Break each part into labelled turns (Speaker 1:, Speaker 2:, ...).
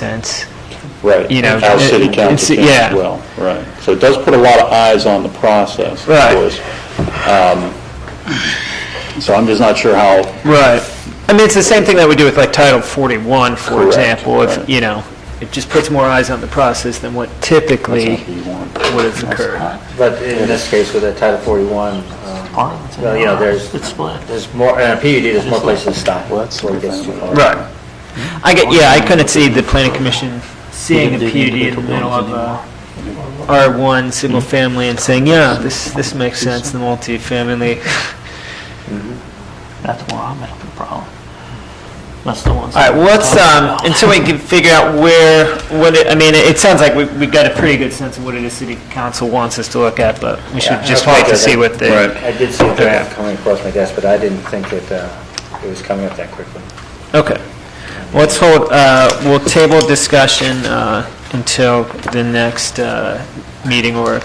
Speaker 1: sense.
Speaker 2: Right.
Speaker 1: You know,
Speaker 2: Our city
Speaker 1: it- it's-
Speaker 2: council can
Speaker 1: yeah.
Speaker 2: as well, right. So it does put a lot of eyes on the process, of
Speaker 1: Right.
Speaker 2: course. Um, So I'm just not sure how,
Speaker 1: Right. I mean, it's the same thing that we do with like Title 41, for
Speaker 2: Correct,
Speaker 1: example, if,
Speaker 2: right.
Speaker 1: you know, it just puts more eyes on the process than what
Speaker 2: that's
Speaker 1: typically
Speaker 2: not what you want.
Speaker 1: would have occurred.
Speaker 3: But in this case, with the Title 41, um, well, you know, there's, there's more, uh, and a PUD, there's more places to stop. Well, that's where it gets too far.
Speaker 1: Right. I get, yeah, I couldn't see the planning commission seeing a PUD in the middle of a R1 single family and saying, yeah, this, this makes sense, the multifamily.
Speaker 4: That's where I'm having a problem. That's the one.
Speaker 1: All right, well, let's, um, until we can figure out where, what, it- I mean, it sounds like we, we got a pretty good sense of what it is city council wants us to look at, but we
Speaker 3: Yeah,
Speaker 1: should
Speaker 3: I
Speaker 1: just wait to
Speaker 3: apologize.
Speaker 1: see what the,
Speaker 3: I did see a
Speaker 1: Yeah.
Speaker 3: draft coming across my desk, but I didn't think that uh, it was coming up that quickly.
Speaker 1: okay. Let's hold, uh, we'll table discussion, uh, until the next, uh, meeting, or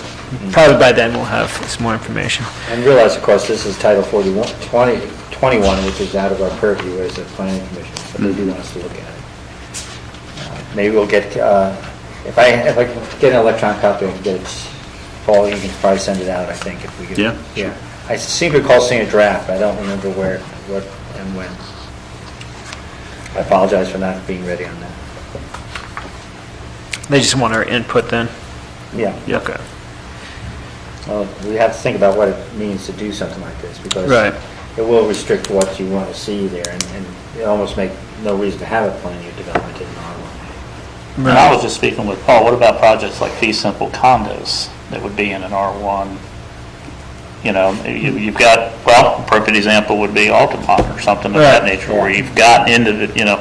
Speaker 1: probably by then we'll have some more information.
Speaker 3: And realize, of course, this is Title 41, 20, 21, which is out of our purview as a planning commission, so they do want us to look at it. Uh, Maybe we'll get, uh, if I, if I can get an electronic copy, I can get it, Paul, you can probably send it out, I think, if we get.
Speaker 2: Yeah,
Speaker 3: Yeah. I seem to recall seeing a draft, I don't remember where, what, and when. I apologize for not being ready on that.
Speaker 1: They just want our input then?
Speaker 3: Yeah.
Speaker 1: Okay.
Speaker 3: Well, we have to think about what it means to do something like this, because
Speaker 1: Right.
Speaker 3: it will restrict what you want to see there, and, and it almost make no reason to have a planned unit development in R1.
Speaker 4: And I was just speaking with Paul, what about projects like fee simple condos that would be in an R1? You know, you- you've got, well, appropriate example would be Altamont or something of that
Speaker 1: Right.
Speaker 4: nature, where you've got into, the- you know,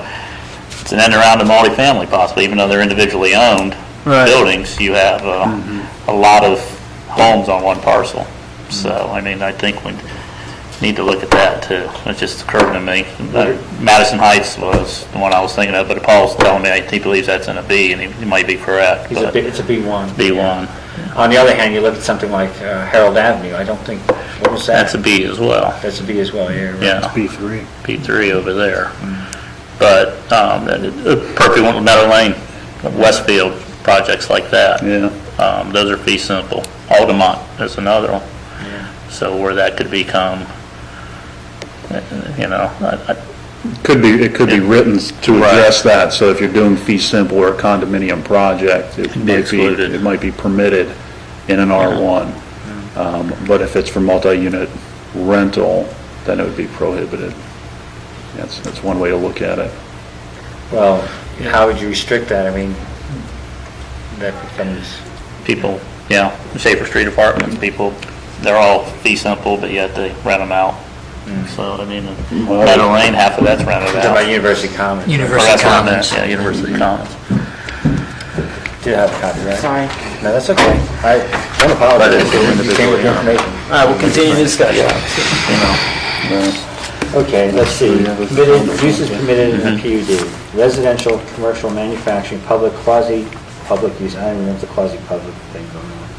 Speaker 4: it's an end around to multifamily possibly, even though they're individually owned
Speaker 1: Right.
Speaker 4: buildings, you have uh, a lot of homes on one parcel. So, I mean, I think we need to look at that too. It just occurred to me. Uh, Madison Heights was the one I was thinking of, but Paul's telling me he believes that's in a B, and he he might be correct.
Speaker 3: It's a,
Speaker 4: but
Speaker 3: B- it's a B1.
Speaker 4: B1,
Speaker 3: On the other hand, you look at something like uh, Harold Avenue, I don't think, what was that?
Speaker 4: that's a B as well.
Speaker 3: That's a B as well, yeah. right.
Speaker 4: Yeah. B3. B3 over there. But um, that- uh, perfect one with Meadow Lane, Westfield, projects like that.
Speaker 2: Yeah.
Speaker 4: Um, Those are fee simple. Altamont is another one. So where that could become, uh, you know, I- I-
Speaker 2: Could be, it could be written to address that, so if you're doing fee simple or a condominium project, it might be,
Speaker 4: excluded.
Speaker 2: it might be permitted in an R1. Um, But if it's for multi-unit rental, then it would be prohibited. That's, that's one way to look at it.
Speaker 3: Well, how would you restrict that? I mean, that becomes,
Speaker 4: people, you know, Schaefer Street Apartments, people, they're all fee simple, but yet they rent them out.
Speaker 1: Hmm.
Speaker 4: So, I mean, Meadow Lane, half of that's rented
Speaker 3: talking about
Speaker 4: out.
Speaker 3: University Commons.
Speaker 4: Or
Speaker 5: University
Speaker 4: that's what I meant,
Speaker 5: Commons.
Speaker 4: Yeah, University Commons.
Speaker 3: Do have a copy, right? Sorry. No, that's okay. I don't apologize, you came with your information.
Speaker 1: All right, we'll continue the discussion.
Speaker 3: Okay, let's see. Permitted, uses permitted in a PUD, residential, commercial, manufacturing, public, quasi-public use, I don't remember the quasi-public thing going on,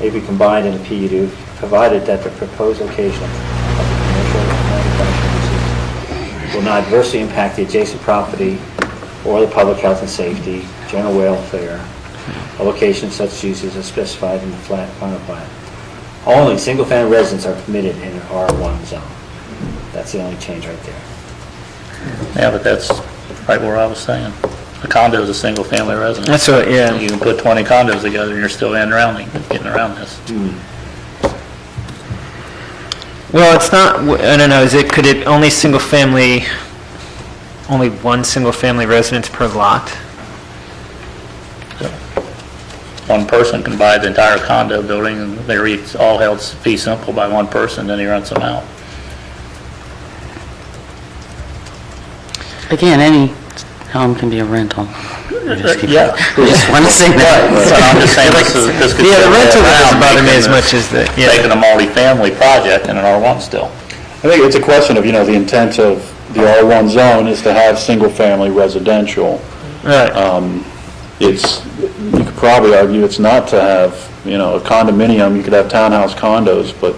Speaker 3: may be combined in a PUD, provided that the proposed location of the commercial and manufacturing uses will not adversely impact the adjacent property or the public health and safety, general welfare, a location of such uses as specified in the flat final plan. Only single-family residents are permitted in an R1 zone. That's the only change right there.
Speaker 4: Yeah, but that's right where I was saying. A condo is a single-family residence.
Speaker 1: That's what,
Speaker 4: You
Speaker 1: yeah,
Speaker 4: can put 20 condos together, and you're still in around, it- getting around this.
Speaker 1: well, it's not, I don't know, is it, could it, only single family, only one single family residence per lot?
Speaker 4: One person can buy the entire condo building, and they're each all held fee simple by one person, then he rents them out.
Speaker 5: Again, any home can be a rental.
Speaker 4: Yeah.
Speaker 5: Just want to say
Speaker 4: But
Speaker 5: that.
Speaker 4: I'm just saying, this is, this could...
Speaker 1: Yeah, the
Speaker 4: go
Speaker 1: rental
Speaker 4: around,
Speaker 1: doesn't bother me
Speaker 4: making
Speaker 1: as
Speaker 4: the-
Speaker 1: much as the, yeah,
Speaker 4: Making a multifamily project in an R1 still.
Speaker 2: I think it's a question of, you know, the intent of the R1 zone is to have single-family residential.
Speaker 1: right,
Speaker 2: It's, you could probably argue it's not to have, you know, a condominium, you could have townhouse condos, but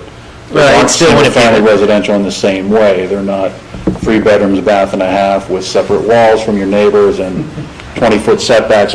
Speaker 2: they
Speaker 1: Right,
Speaker 2: aren't
Speaker 1: it's still wouldn't be-
Speaker 2: single-family residential in the same way. They're not three bedrooms, bath and a half with separate walls from your neighbors and 20-foot setbacks